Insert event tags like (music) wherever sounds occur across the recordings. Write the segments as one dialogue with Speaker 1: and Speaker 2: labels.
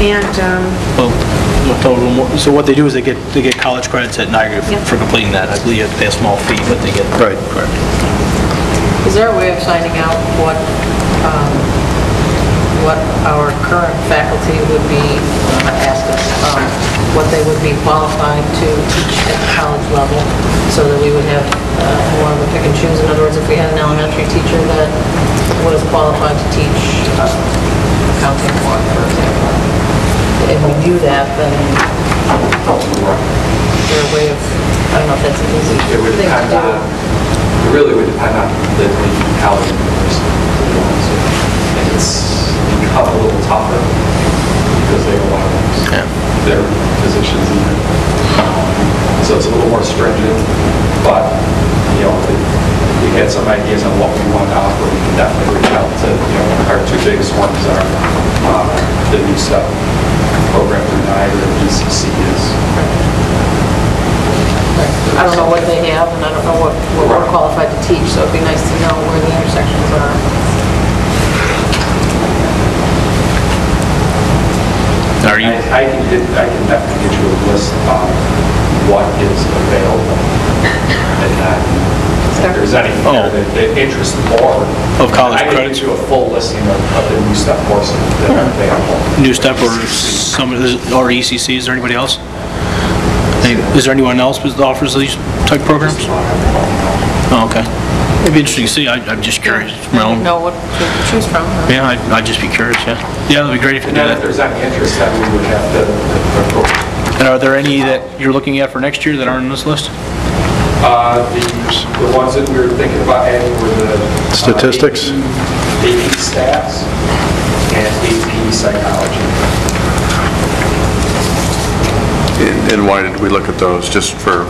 Speaker 1: And, um,
Speaker 2: Well, we'll tell them what- So what they do is they get, they get college credits at Niagara
Speaker 1: Yeah.
Speaker 2: for completing that. I believe you have to pay a small fee, but they get.
Speaker 3: Right.
Speaker 2: Correct.
Speaker 4: Is there a way of finding out what, um, what our current faculty would be, uh, asked us, um, what they would be qualified to teach at the college level, so that we would have uh, more of a pick and choose? In other words, if we had an elementary teacher that was qualified to teach uh, accounting one, for example, and we knew that, then is there a way of, I don't know if that's an easy
Speaker 5: It would
Speaker 4: thing to
Speaker 5: depend
Speaker 4: do.
Speaker 5: on, it really would depend on the the college and university. And it's become a little tougher because they want to lose their positions even. So it's a little more stringent, but, you know, if we had some ideas on what we want to offer, we can definitely reach out to, you know, our two biggest ones are um, the new stuff program through NIDA and BCC is
Speaker 4: I don't know what they have, and I don't know what what we're
Speaker 5: Right.
Speaker 4: qualified to teach, so it'd be nice to know where the intersections are.
Speaker 6: Are you,
Speaker 5: I I can, get- I can definitely get you a list of what is available and that, if there's anything there that that interests the board.
Speaker 2: Oh. Of college
Speaker 5: I can
Speaker 2: credits?
Speaker 5: get you a full listing of of the new stuff courses that are available.
Speaker 2: New Step or some, or ECC, is there anybody else? Any- Is there anyone else that offers these type programs? Oh, okay. It'd be interesting to see, I- I'm just curious. from my own-
Speaker 4: Know what to choose from. huh?
Speaker 2: Yeah, I'd I'd just be curious, yeah. Yeah, that'd be great if you
Speaker 5: And
Speaker 2: did
Speaker 5: then if
Speaker 2: that.
Speaker 5: there's any interest, then we would have to, to approve.
Speaker 2: And are there any that you're looking at for next year that aren't on this list?
Speaker 5: Uh, the, the ones that we were thinking about adding were the. uh,
Speaker 3: Statistics?
Speaker 5: AP AP stats and AP psychology.
Speaker 3: And and why did we look at those? Just for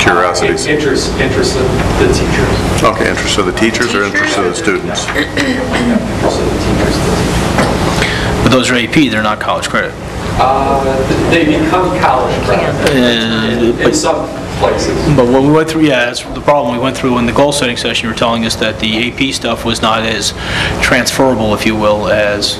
Speaker 3: curiosities?
Speaker 5: Interest, interest of the teachers.
Speaker 3: Okay, interest of the teachers or interest of the students?
Speaker 5: Interest of the teachers, the teachers.
Speaker 2: But those are AP, they're not college credit.
Speaker 5: (clears throat) Uh, They become college credit
Speaker 2: Uh,
Speaker 5: in some places.
Speaker 2: But when we went through, yeah, that's the problem, we went through in the goal-setting session, you were telling us that the AP stuff was not as transferable, if you will, as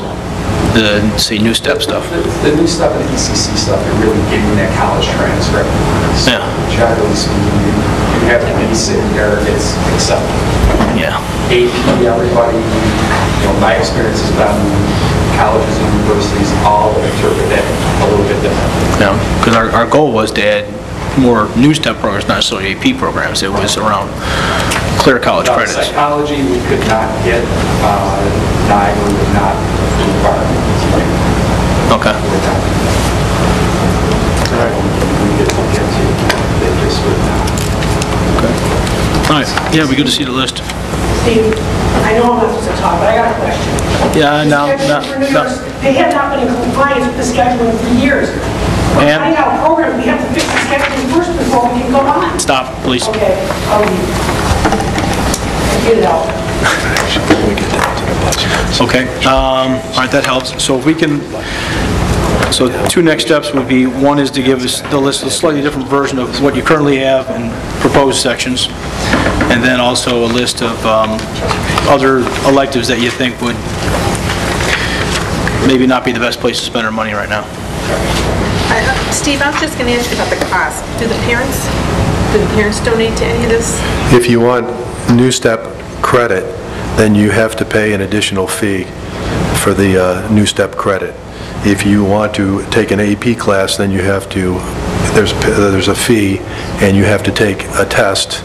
Speaker 2: the, say, New Step stuff.
Speaker 5: The the new stuff and the ECC stuff are really getting that college transcript. So
Speaker 2: Yeah.
Speaker 5: Generally speaking, you you have a basic there, it's accepted.
Speaker 2: Yeah,
Speaker 5: AP, everybody, you know, my experience has been colleges and universities all interpret that a little bit differently.
Speaker 2: yeah, because our, our goal was to add more New Step programs, not necessarily AP programs, it was around clear college
Speaker 5: Without
Speaker 2: credits.
Speaker 5: Psychology, we could not get, uh, NIGO would not approve our TA.
Speaker 2: Okay,
Speaker 5: We could look into, they just would not.
Speaker 2: all right, yeah, it'd be good to see the list.
Speaker 7: Steve, I know I'm not supposed to talk, but I got a question.
Speaker 2: Yeah, Uh, no,
Speaker 7: The scheduling
Speaker 2: no,
Speaker 7: for New
Speaker 2: no.
Speaker 7: Year's, They have not been in compliance with the scheduling for years. We're
Speaker 2: Ma'am?
Speaker 7: cutting out a program, we have to fix the scheduling first before we can go on.
Speaker 2: Stop, please.
Speaker 7: Okay, I'll leave. Get it out.
Speaker 2: Okay, um, all right, that helps. So if we can, so two next steps would be, one is to give us the list, a slightly different version of what you currently have and proposed sections, and then also a list of um, other electives that you think would maybe not be the best place to spend our money right now.
Speaker 1: I- uh, Steve, I was just going to ask you about the cost. Do the parents, do the parents donate to any of this?
Speaker 8: If you want New Step credit, then you have to pay an additional fee for the uh, New Step credit. If you want to take an AP class, then you have to, there's, there's a fee, and you have to take a test,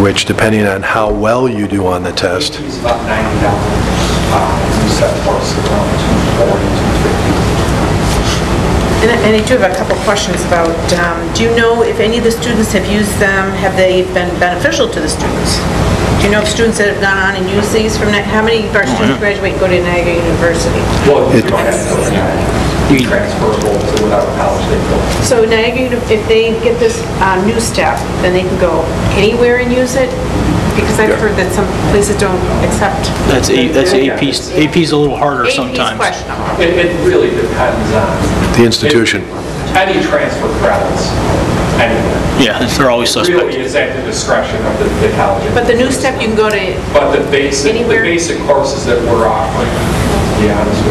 Speaker 8: which depending on how well you do on the test,
Speaker 5: It's about ninety dollars. You set course around two forty, two fifty.
Speaker 1: And I- and I do have a couple questions about, um, do you know if any of the students have used them? Have they been beneficial to the students? Do you know if students that have gone on and used these from, Ni- how many of our students graduate and go to Niagara University?
Speaker 5: Well, you don't have to, you know, you transferable to whatever college they go.
Speaker 1: So Niagara, Uni- if they get this uh, new step, then they can go anywhere and use it? Because I've heard that some places don't accept.
Speaker 2: That's A- that's AP's, AP's a little harder
Speaker 1: AP's
Speaker 2: sometimes.
Speaker 1: questionable.
Speaker 5: It, it really depends on
Speaker 8: the institution.
Speaker 5: any transfer credits, anywhere.
Speaker 2: Yeah, they're always suspect.
Speaker 5: Really is at the discretion of the the college.
Speaker 1: But the new step, you can go to
Speaker 5: But the basic, the
Speaker 1: Anywhere.
Speaker 5: basic courses that we're offering, to be honest with you,